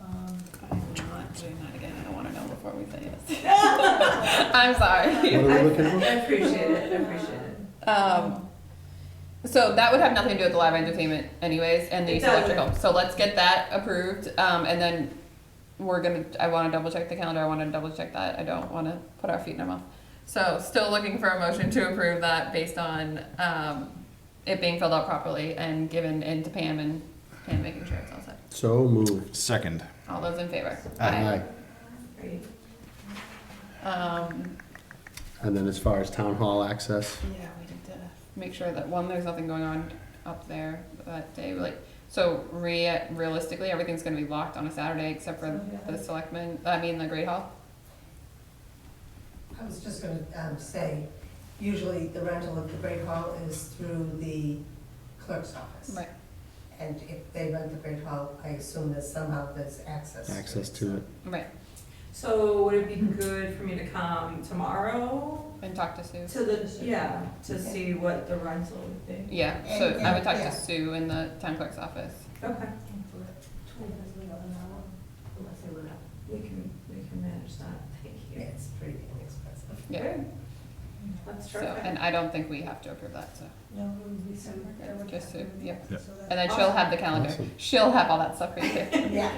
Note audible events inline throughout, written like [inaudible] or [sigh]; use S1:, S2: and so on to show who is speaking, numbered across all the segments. S1: Um,
S2: before we say yes.
S1: [laughs]
S2: I'm sorry.
S3: What are we looking
S4: I
S3: for?
S4: appreciate it, I appreciate it.
S2: Um, so that would have nothing to do with the live entertainment anyways, and the
S4: It
S2: use of
S4: doesn't.
S2: electrical. So let's get that approved, um, and then we're gonna, I wanna double check the calendar, I wanna double check that, I don't wanna put our feet in our mouth. So still looking for a motion to approve that based on, um, it being filled out properly and given into Pam and Pam making sure it's all set.
S3: [laughs] So moved.
S5: Second.
S2: All those in favor?
S3: Aye.
S4: Great.
S2: Um,
S3: And then as far as town hall access,
S2: Yeah, we need to make sure that one, there's nothing going on up there that day. Like, so rea- realistically, everything's gonna be locked on a Saturday except for the selectmen. I mean, the great hall.
S1: I was just gonna um, say, usually the rental of the Great Hall is through the clerk's office.
S2: Right.
S1: And if they rent the Great Hall, I assume that somehow there's access.
S3: access to it.
S2: Right.
S4: So would it be
S1: Hmm.
S4: good for me to come tomorrow
S2: And talk to Sue.
S4: to the, yeah, to
S1: Okay.
S4: see what the rental would be?
S2: Yeah. So
S1: And-
S2: I would talk
S1: yeah.
S2: to Sue in the town clerk's office.
S4: Okay,
S1: Unless they live up.
S4: we can, we can manage that, thank
S1: Yeah,
S4: you.
S1: it's pretty inexpensive.
S2: Yeah.
S4: Good. That's
S2: So
S4: terrific.
S2: and I don't think we have to approve that. So
S6: Mm-hmm. No, it would be summer. I would
S2: Just
S6: have to-
S2: to- yep.
S5: Yeah.
S6: so that-
S2: and then she'll have the calendar.
S3: Awesome.
S2: She'll have all that stuff for you. Too.
S1: Yeah.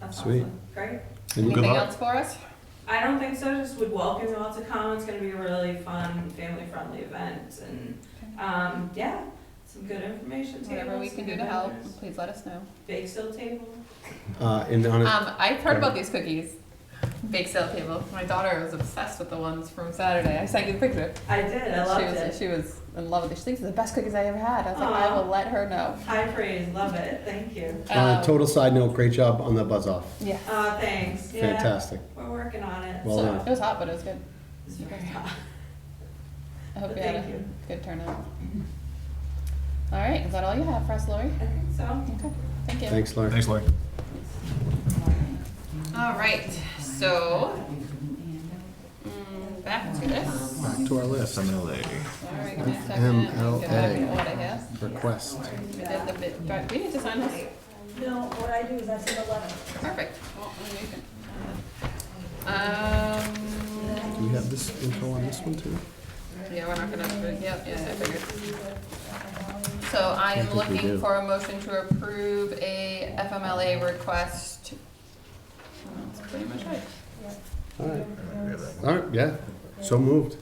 S4: That's
S3: Sweet.
S4: awesome. Great.
S3: And
S2: Anything
S5: luck.
S2: else for us?
S4: I don't think so, just would welcome you all to come, it's gonna be a really fun, family-friendly event, and, um, yeah, some good information tables.
S2: Whatever we
S4: some
S2: can do
S4: good
S2: to help,
S4: vendors.
S2: please let us know.
S4: Bake sale table.
S3: Uh, and on a,
S2: Um, I've heard about these cookies. Bake sale table. My daughter was obsessed with the ones from Saturday. I sent you the picture.
S4: I did, I
S2: she
S4: loved
S2: was
S4: it.
S2: she was in love with it. She thinks they're the best cookies I ever had. I was like, I
S4: Aw.
S2: will let her know.
S4: High praise, love it, thank you.
S3: on
S2: Um,
S3: a Uh, total side note, great job on the buzz off.
S2: Yeah.
S4: Uh, thanks, yeah.
S3: Fantastic.
S4: We're working on it.
S3: Well
S2: so
S3: done.
S2: it was hot, but it was good.
S4: It's very hot. [laughs]
S2: I hope
S4: But
S2: you had a
S4: thank you.
S2: good turnout. All right, is that all you have for us, Lori?
S4: I think so.
S2: Okay, thank you.
S3: Thanks, Larry.
S5: Thanks, Lloyd.
S2: All right, so mm, back to this.
S3: Back to our list.
S5: FMLA.
S2: Sorry, give me a second. Go back in order here.
S3: Request.
S2: We did the bit- do I- We need to sign this.
S6: No, what I do is I send a letter.
S2: Perfect. Well, then you can-
S3: Do
S2: Um,
S3: you have this info on this one too?
S2: yeah, we're not gonna, yep, yeah, I figured. So I am
S3: think we
S2: looking
S3: do.
S2: for a motion to approve a FMLA request. That's pretty much it.
S3: All right, all right, yeah, so moved.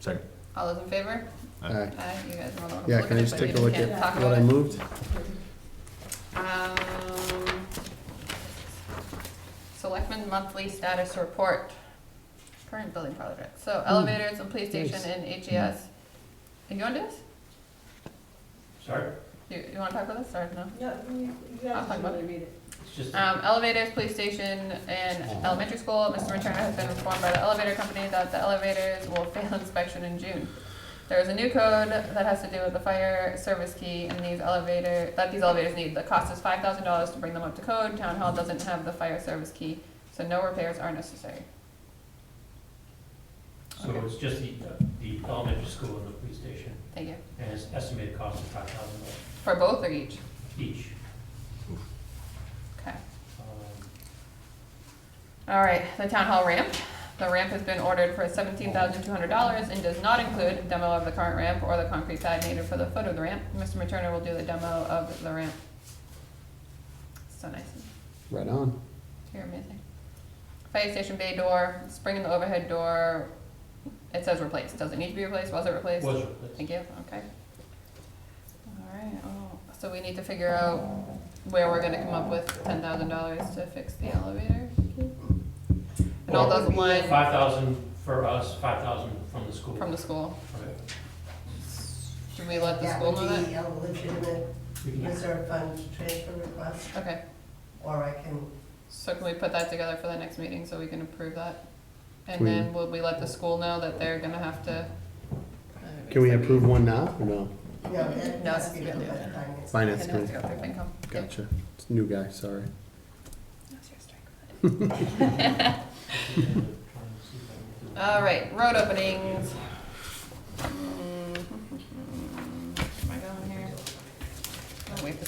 S5: Second.
S2: All those in favor?
S3: All right,
S2: Aye, you guys are all looking.
S3: yeah, can I just take a look at what I moved?
S2: Um, Selectmen monthly status report, current building project, so elevators and police station
S3: nice.
S2: and HES. You wanna do this?
S7: Sorry,
S2: You, you wanna talk about this, or no?
S6: No, you, you
S2: I'll
S6: guys
S2: talk about
S6: should
S2: it.
S6: read it.
S7: it's just,
S2: Um, elevators, police station, and elementary school, Mr. Returner has been informed by the elevator company that the elevators will [laughs] fail inspection in June. There is a new code that has to do with the fire service key and these elevator, that these elevators need, the cost is five thousand dollars to bring them up to code, town hall doesn't have the fire service key, so no repairs are necessary.
S7: so
S2: okay.
S7: it's just the, the elementary school and the police station,
S2: Thank you.
S7: and it's estimated cost of five thousand dollars
S2: For both or each?
S7: each.
S2: Okay.
S7: Um,
S2: All right, the town hall ramp. The ramp has been ordered for seventeen thousand two hundred dollars and does not include demo of the current ramp or the concrete pad needed for the foot of the ramp. Mr. Materna will do the demo of the ramp. So nice.
S3: Right on.
S2: You're amazing. Fire station bay door, spring in the overhead door. It says replaced. Does it need to be replaced? Was it replaced?
S7: Was replaced.
S2: Thank you, okay. All right, oh, so we need to figure out where we're gonna come up with ten thousand dollars to fix the elevator. And all those lines
S7: Five thousand for us, five thousand from the school.
S2: from the school,
S7: Okay.
S2: should we let the school know
S1: That would
S2: that?
S1: be a legitimate
S7: We can-
S1: reserve fund transfer request,
S2: Okay,
S1: or I can,
S2: so can we put that together for the next meeting so we can approve that?
S3: Can
S2: And
S3: we-
S2: then will we let the school know that they're gonna have to?
S3: Can we approve one now or no?
S1: no, that
S2: No,
S1: has to be
S2: it's-
S1: done by the finance.
S2: It
S3: Finance
S2: has to
S3: committee,
S2: go through FinCom. Yeah.
S3: gotcha. It's a new guy, sorry.
S2: That's your strike.
S7: we can try and see if I can do it.
S2: All right, road openings. [laughs] Mm, Am I going here? I'll wait for